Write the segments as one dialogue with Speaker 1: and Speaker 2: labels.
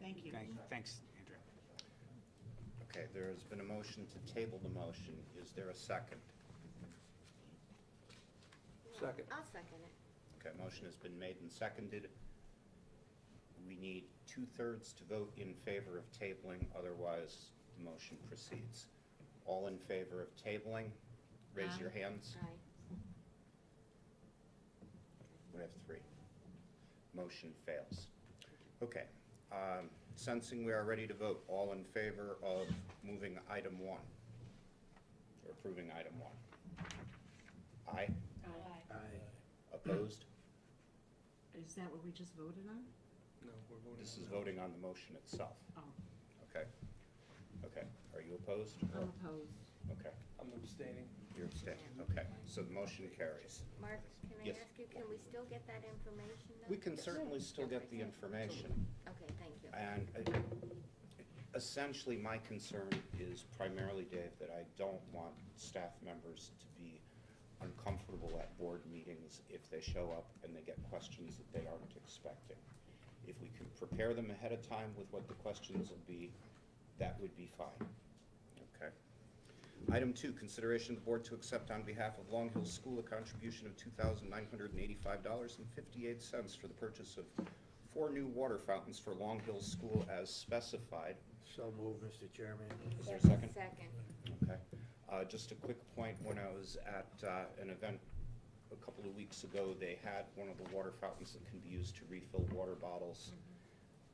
Speaker 1: Thank you.
Speaker 2: Thank- Thanks, Andrea.
Speaker 3: Okay, there has been a motion to table the motion. Is there a second?
Speaker 4: Second.
Speaker 5: I'll second it.
Speaker 3: Okay, motion has been made and seconded. We need two-thirds to vote in favor of tabling, otherwise the motion proceeds. All in favor of tabling, raise your
Speaker 1: Aye.
Speaker 3: hands.
Speaker 5: Aye.
Speaker 3: We have three. Motion fails. Okay, um, sensing we are ready to vote, all in favor of moving item one, or approving item one? Aye?
Speaker 1: Aye.
Speaker 4: Aye.
Speaker 3: Opposed?
Speaker 1: Is that what we just voted on?
Speaker 4: No, we're voting.
Speaker 3: This
Speaker 4: on
Speaker 3: is
Speaker 4: no.
Speaker 3: voting on the motion itself.
Speaker 1: Oh,
Speaker 3: Okay. Okay. Are you opposed? Oh,
Speaker 1: I'm opposed.
Speaker 3: Okay.
Speaker 4: I'm abstaining.
Speaker 3: You're abstaining. Okay. So the motion carries.
Speaker 5: Mark, can I
Speaker 3: Yes.
Speaker 5: ask you, can we still get that information? though?
Speaker 3: We can certainly still get the information.
Speaker 5: Okay, thank you.
Speaker 3: And uh, essentially, my concern is primarily, Dave, that I don't want staff members to be uncomfortable at board meetings if they show up and they get questions that they aren't expecting. If we can prepare them ahead of time with what the questions will be, that would be fine. Okay. Item two, consideration of the board to accept on behalf of Long Hill School a contribution of $2,985.58 for the purchase of four new water fountains for Long Hill School as specified.
Speaker 6: So move, Mr. Chairman.
Speaker 3: Is there a second?
Speaker 5: Second.
Speaker 3: Okay. Uh, Just a quick point, when I was at uh, an event a couple of weeks ago, they had one of the water fountains that can be used to refill water
Speaker 7: Mm-hmm.
Speaker 3: bottles.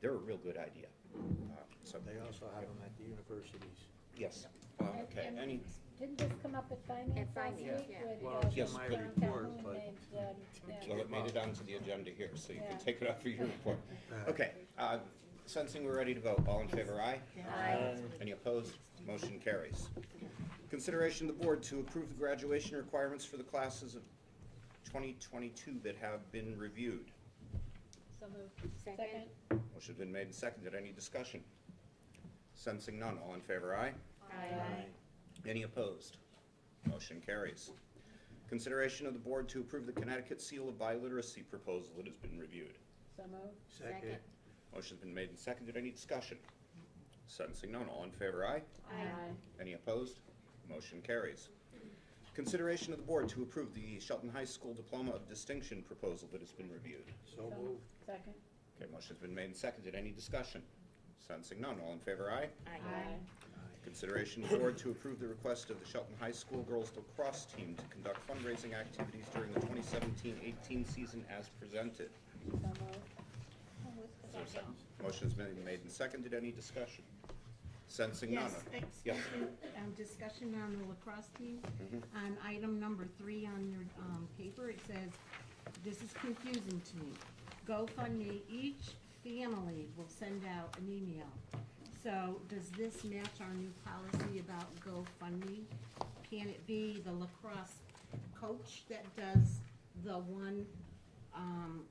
Speaker 3: They're a real good idea. Uh, So
Speaker 6: They also have them at the universities.
Speaker 3: Yes. Uh, Okay,
Speaker 7: And-
Speaker 3: any,
Speaker 7: Didn't this come up at finance
Speaker 5: At
Speaker 7: last week?
Speaker 5: finance, yeah.
Speaker 7: with,
Speaker 4: Well, it's
Speaker 7: uh,
Speaker 3: in my
Speaker 7: downtown
Speaker 4: report,
Speaker 7: Moon
Speaker 4: but-
Speaker 7: and, um, yeah.
Speaker 3: well, it made it onto the agenda here, so you
Speaker 7: Yeah.
Speaker 3: can take it up for your report.
Speaker 6: Uh,
Speaker 3: Okay, uh, sensing we're ready to vote, all in favor, aye?
Speaker 5: Aye.
Speaker 3: Any opposed? Motion carries. Consideration of the board to approve the graduation requirements for the classes of 2022 that have been reviewed.
Speaker 7: So moved.
Speaker 5: Second.
Speaker 3: Motion has been made and seconded. Any discussion? Sensing none. All in favor, aye?
Speaker 5: Aye.
Speaker 3: Any opposed? Motion carries. Consideration of the board to approve the Connecticut Seal of Biliteracy proposal that has been reviewed.
Speaker 7: So moved.
Speaker 6: Second.
Speaker 3: Motion's been made and seconded. Any discussion? Sensing none. All in favor, aye?
Speaker 5: Aye.
Speaker 3: Any opposed? Motion carries. Consideration of the board to approve the Shelton High School Diploma of Distinction proposal that has been reviewed.
Speaker 6: So
Speaker 7: So
Speaker 6: move.
Speaker 7: moved. Second.
Speaker 3: Okay, motion's been made and seconded. Any discussion? Sensing none. All in favor, aye?
Speaker 5: Aye.
Speaker 3: Consideration of the board to approve the request of the Shelton High School Girls Lacrosse Team to conduct fundraising activities during the 2017-18 season as presented.
Speaker 7: So moved.
Speaker 3: Motion's been made and seconded. Any discussion? Sensing none.
Speaker 1: Yes,
Speaker 3: Yes.
Speaker 1: excuse me, um, discussion on the lacrosse team. On item number three on your um, paper, it says, this is confusing to me. GoFundMe, each family will send out an email. So does this match our new policy about GoFundMe? Can it be the lacrosse coach that does the one um,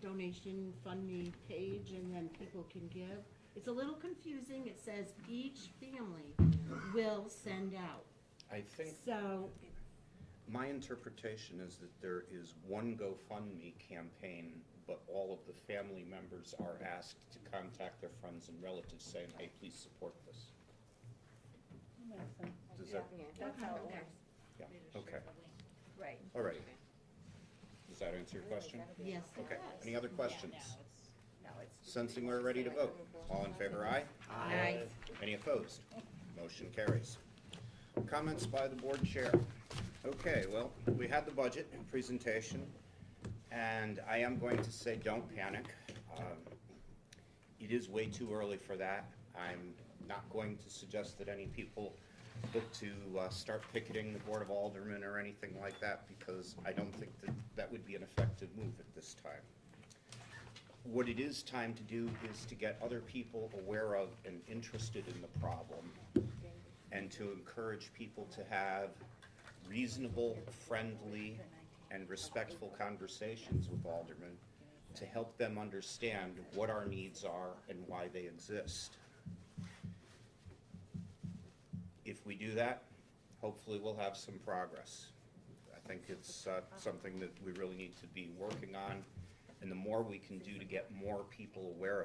Speaker 1: donation fund me page and then people can give. It's a little confusing. It says each family will send out.
Speaker 3: I think
Speaker 1: So,
Speaker 3: My interpretation is that there is one GoFundMe campaign, but all of the family members are asked to contact their friends and relatives saying, hey, please support this.
Speaker 7: Makes sense.
Speaker 3: Does that,
Speaker 5: Yeah, that's how it works.
Speaker 3: yeah, okay.
Speaker 5: Right.
Speaker 3: All right. Does that answer your question?
Speaker 1: yes.
Speaker 3: Okay, any other questions? Sensing we're ready to vote. All in favor, aye?
Speaker 5: Aye.
Speaker 3: Any opposed? Motion carries. Comments by the board chair. Okay, well, we had the budget presentation, and I am going to say, don't panic. Um, It is way too early for that. I'm not going to suggest that any people look to uh, start picketing the Board of Aldermen or anything like that, because I don't think that that would be an effective move at this time. What it is time to do is to get other people aware of and interested in the problem, and to encourage people to have reasonable, friendly, and respectful conversations with aldermen to help them understand what our needs are and why they exist. If we do that, hopefully we'll have some progress. I think it's uh, something that we really need to be working on, and the more we can do to get more people aware of